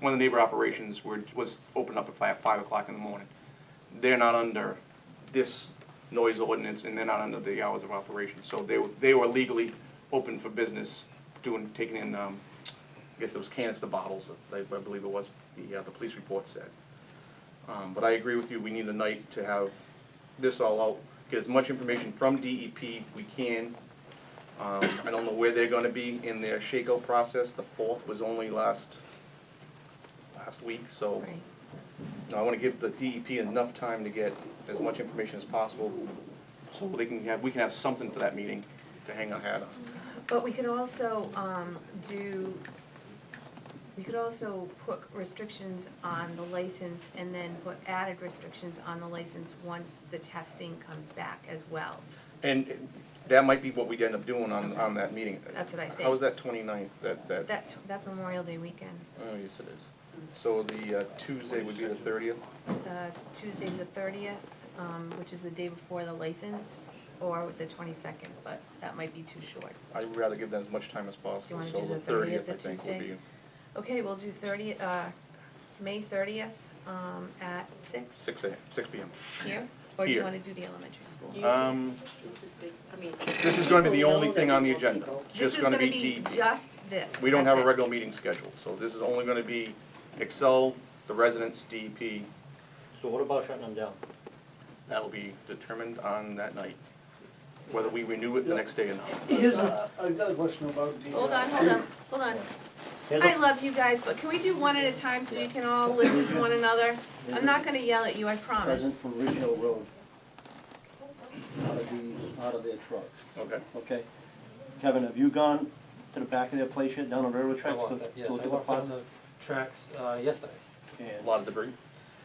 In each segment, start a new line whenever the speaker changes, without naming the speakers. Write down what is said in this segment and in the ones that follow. one of the neighbor operations were, was opened up at five, five o'clock in the morning. They're not under this noise ordinance, and they're not under the hours of operation, so they, were- they were legally open for business, doing, taking in, um, I guess it was canister bottles, I, I believe it was, the, uh, the police report said. Um, but I agree with you, we need a night to have this all out, get as much information from DEP we can. Um, I don't know where they're gonna be in their shakeout process, the fourth was only last, last week, so.
Right.
you know, I wanna give the DEP enough time to get as much information as possible, so they can have, we can have something for that meeting to hang our hat on.
But we could also, um, do, we could also put restrictions on the license and then put added restrictions on the license once the testing comes back as well.
And that might be what we'd end up doing on, on that meeting.
That's what I think.
How was that 29th? that, that?
That, that's Memorial Day weekend,
Oh, yes, it is. So the uh, Tuesday would be the thirtieth?
uh, Tuesday's the thirtieth, um, which is the day before the license, or the twenty-second, but that might be too short.
I'd rather give them as much time as possible,
wanna
so
do
the
the 30th,
thirtieth,
the
I think, would
Tuesday?
be
Okay, we'll do thirty, uh, May thirtieth, um, at six
six a.m., six p.m.
here? Or do you
Here.
wanna do the elementary school?
You-
Um,
This is big, I mean.
This is gonna be the
people
only
know
thing
that
on the
we want
agenda.
people.
Just gonna be E deep.
This is gonna be just this.
we don't
That's
have a
it.
regular meeting scheduled, so this is only gonna be Excel, the residents, E DEP,
So what about shutting them down?
that'll be determined on that night, whether we renew it the next day or not.
Here's a, Uh, I've got a question about the.
Hold
uh,
on, hold on, hold on.
Here's
I
a-
love you guys, but can we do one at a time so you can all listen to one another? I'm not gonna yell at you, I promise.
Present from Ridgehill Road. Out of the, out of their truck,
Okay,
okay? Kevin, have you gone to the back of their place yet, down on railroad
I
tracks? to
walked that, yes,
go
I
to the
walked on
plaza?
the tracks uh, yesterday.
a
And
lot of debris.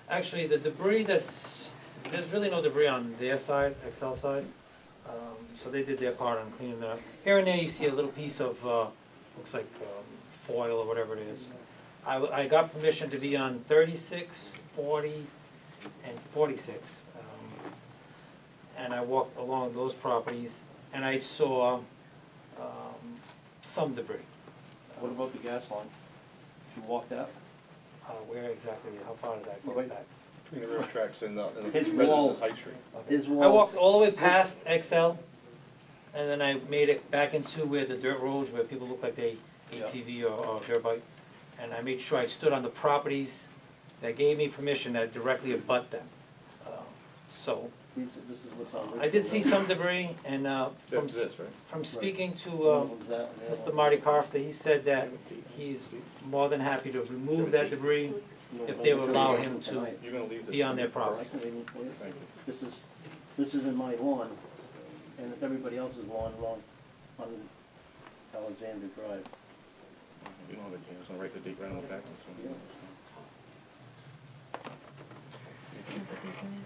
Actually, the debris that's, there's really no debris on their side, Excel side. Um, So they did their part on cleaning that up. Here and there, you see a little piece of, uh, looks like um, foil or whatever it is. I, w- I got permission to be on 36, 40, and 46. um, And I walked along those properties, and I saw um, some debris.
what about the gas line? Did you walk that?
Uh, Where exactly, how far does that go
Wait.
back?
Between the rail tracks and the, and the
His
residents
wall.
of High Street.
Okay.
His
I
wall-
walked all the way past Excel, and then I made it back into where the dirt roads, where people look like they
Yeah.
ATV or, or dirt bike. And I made sure I stood on the properties that gave me permission that directly abut them. Uh, So,
These- This is what's on Ridgehill.
I did see
Road.
some debris, and, uh, from,
That's this, right?
from speaking to,
One
uh,
of them's that and the other
Mr.
one-
Marty Costa, he said that he's more than happy to remove that debris
No,
if
no,
they
no,
would
no,
allow
no,
him to
tonight.
You're gonna leave this.
be on their property.
This
Thank you.
is, this is in my lawn, and it's everybody else's lawn along on Alexander Drive.
You don't have a chance, I'll write the date right on the back. If
Can I put these in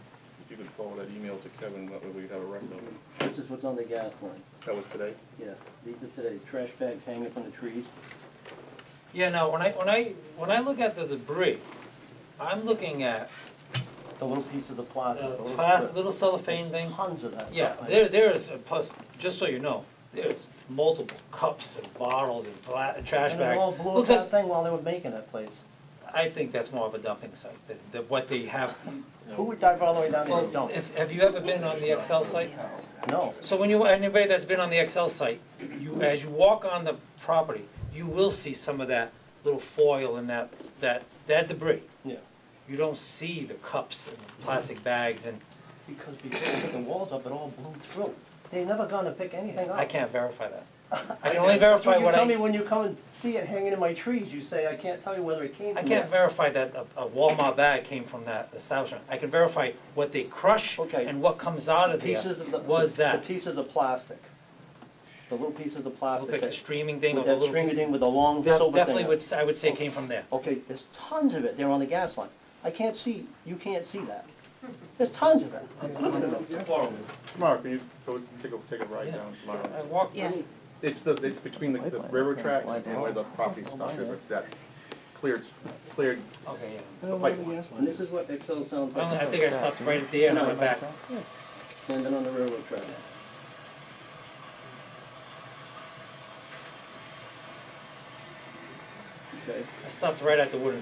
you could forward that email to Kevin, that way we have a record of it.
This is what's on the gas line,
That was today?
yeah. These are today, trash bags hanging from the trees.
Yeah, now, when I, when I, when I look at the debris, I'm looking at
The little piece of the plastic.
uh,
the little
plas-
strip.
little cellophane thing.
Tons of that.
Yeah,
stuff.
there, there is, uh, plus, just so you know, there's multiple cups and bottles and bla- trash
And they all
bags.
blew up
Looks like,
that thing while they were making that place.
I think that's more of a dumping site than, than what they have.
Who would dive all the way down there and
Well,
dump?
if, have you ever been on the Excel site?
No.
So when you, anybody that's been on the Excel site, you, as you walk on the property, you will see some of that little foil and that, that, that debris.
Yeah.
You don't see the cups and
Mm-hmm.
plastic bags and
Because before they put the walls up, it all blew through. They never gonna pick anything up.
I can't verify that. I can only verify
So you
what
tell me
I,
when you come and see it hanging in my trees, you say, I can't tell you whether it came
I
from
can't
there.
verify that a- a Walmart bag came from that establishment. I can verify what they crush
Okay.
and what comes out of there
Pieces of the.
was that.
The pieces of plastic. The little pieces of plastic.
Look like the
that-
streaming thing or
With
the
that
little.
stringy thing with the long
That
silver
Definitely
thing. Oh.
would, s- I would say came from there.
Okay, there's tons of it there on the gas line. I can't see, you can't see that. There's tons of it.
Tomorrow, can you go take a, take a ride
Yeah.
down
I
tomorrow?
walked,
Yeah.
It's the, it's between the the railroad tracks and where the property stock is, like that cleared, cleared
okay, yeah.
the pipeline.
And this is what Excel sounds
I don't- I think
like,
I stopped right there and I went back.
standing on the railroad track. Okay.
I stopped right at the wooden